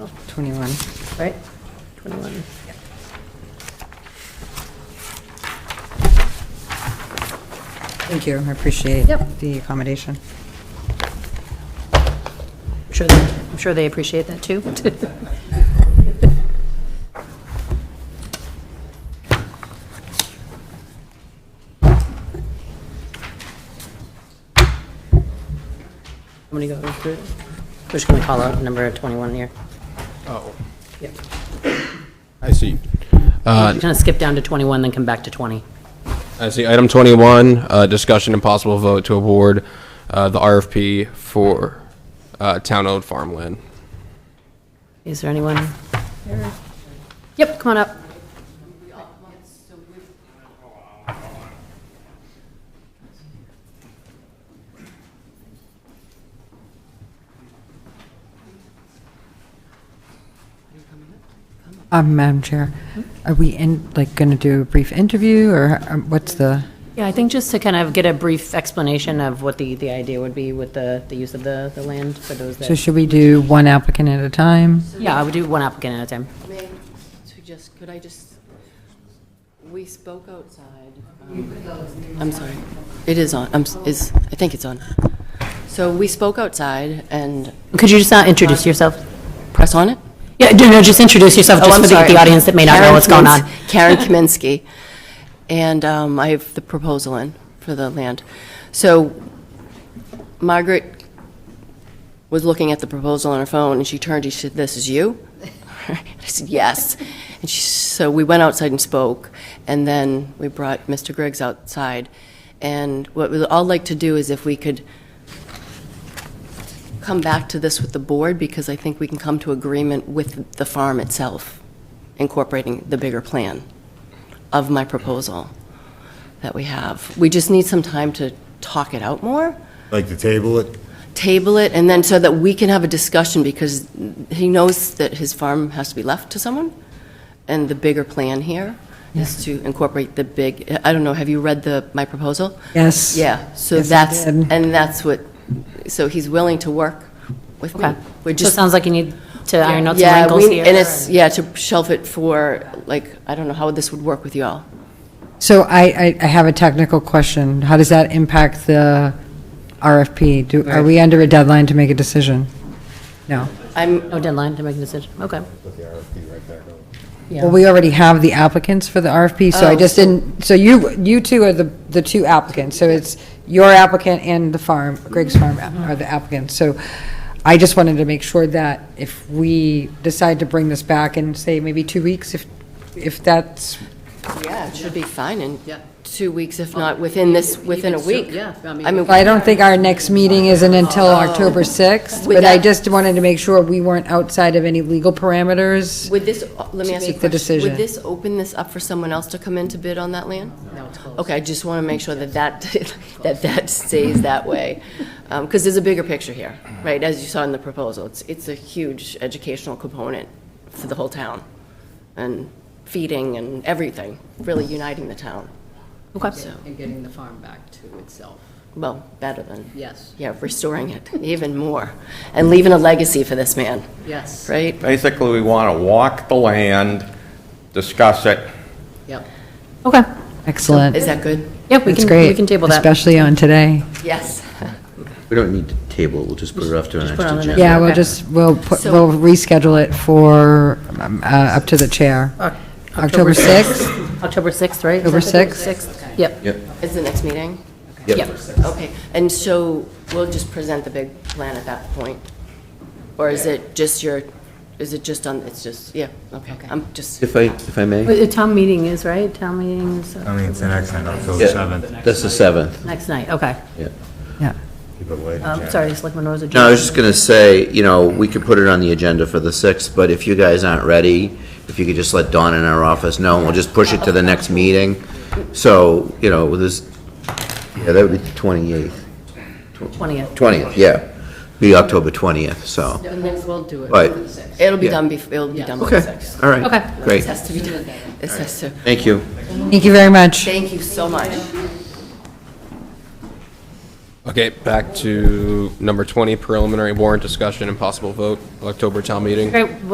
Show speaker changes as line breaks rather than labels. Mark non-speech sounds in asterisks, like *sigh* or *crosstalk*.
21, right? 21. Thank you, I appreciate
Yep.
the accommodation.
I'm sure, they- I'm sure they appreciate that, *laughs* too. I'm going to go through, we're just going to call out number 21 here.
Oh,
Yeah.
I see.
Kind of skip down to 21, then come back to 20.
I see. Item 21, uh, discussion and possible vote to award uh, the RFP for uh, town-owned farmland.
Is there anyone? here? Yep, come on up.
Um, Madam Chair, are we in, like, going to do a brief interview, or um, what's the,
Yeah, I think just to kind of get a brief explanation of what the, the idea would be with the, the use of the, the land for those
so
that.
should we do one applicant at a time?
Yeah, I would do one applicant at a time.
May, to just, could I just, we spoke outside. um, I'm sorry. It is on, I'm, s- is, I think it's on. So we spoke outside and,
Could you just uh, introduce yourself?
press on it?
Yeah, no, no, just introduce yourself,
Oh,
just
I'm
for the,
sorry.
the audience that may not know
Karen
what's going on. *laughs*
Kamins- Karen Kaminsky. And um, I have the proposal in for the land. So Margaret was looking at the proposal on her phone, and she turned, and she said, "This is you?" *laughs* I said, "Yes." And she, so we went outside and spoke, and then we brought Mr. Griggs outside. And what we'd all like to do is if we could come back to this with the board, because I think we can come to agreement with the farm itself, incorporating the bigger plan of my proposal that we have. We just need some time to talk it out more
Like to table it?
table it, and then so that we can have a discussion, because he knows that his farm has to be left to someone, and the bigger plan here is to incorporate the big, I don't know, have you read the, my proposal?
Yes.
Yeah, so
Yes, I
that's,
did.
and that's what, so he's willing to work with me.
Okay.
We're
So it
just
sounds like you need to iron out some
Yeah,
wrinkles
we-
here.
And it's, yeah, to shelf it for, like, I don't know how this would work with you all.
So I, I, I have a technical question. How does that impact the RFP? Do, are we under a deadline to make a decision? No.
I'm,
No deadline to make a decision, okay.
Well, we already have the applicants for the RFP, so I
Oh,
just
so-
didn't, so you, you two are the, the two applicants. So it's your applicant and the farm, Greg's Farm are the applicants. So I just wanted to make sure that if we decide to bring this back in, say, maybe two weeks, if, if that's,
yeah, it should be fine in two weeks, if not within this, within a week. Yeah, I mean.
I don't think our next meeting isn't until
Oh.
October 6th,
Would
but I
that-
just wanted to make sure we weren't outside of any legal parameters.
Would this, uh, let me ask you a
make the
question.
decision.
Would this open this up for someone else to come in to bid on that land? No, it's closed. Okay, I just want to make sure that that, *laughs* that that stays that way. Because there's a bigger picture here, right? As you saw in the proposal, it's, it's a huge educational component for the whole town. And feeding and everything, really uniting the town.
Okay.
And getting the farm back to itself,
Well, better than,
yes,
yeah, restoring it *laughs* even more. And leaving a legacy for this man,
yes,
right?
Basically, we want to walk the land, discuss it.
yep.
Okay,
Excellent.
Is that good?
yeah, we
That's
can,
great.
we can table that.
Especially on today.
Yes.
We don't need to table, it, we'll just put it off to our next
put it on the
agenda.
next-
Yeah, we'll
Okay.
just, we'll, put-
So-
we'll reschedule it for, um, uh, up to the chair. October 6th?
October 6th, right? Is
October
that the-
6th?
Yep,
Is the next meeting?
yep.
Okay, and so we'll just present the big plan at that point? Or is it just your, is it just on, it's just, yeah, okay, I'm just,
If I, if I may?
But The town meeting is, right? Town meeting is
I mean, it's the next night, October
Yeah,
seventh.
That's the 7th,
next night, okay.
yeah.
Yeah.
Keep it late.
Um, Sorry, Selectman Rosa.
No, I was just going to say, you know, we could put it on the agenda for the 6th, but if you guys aren't ready, if you could just let Dawn in our office know, and we'll just push it to the next meeting. So, you know, this, yeah, that would be the 28th,
20th.
20th, yeah, be October 20th, so,
And then we'll do it
Right.
on the 6th.
it'll be
Yeah.
done bef, it'll be done by
okay,
six.
all right.
Okay.
This
Great,
has to be done, this has to,
thank you.
Thank you very much.
thank you so much.
Okay, back to number 20, preliminary warrant discussion and possible vote, October town meeting.
Great,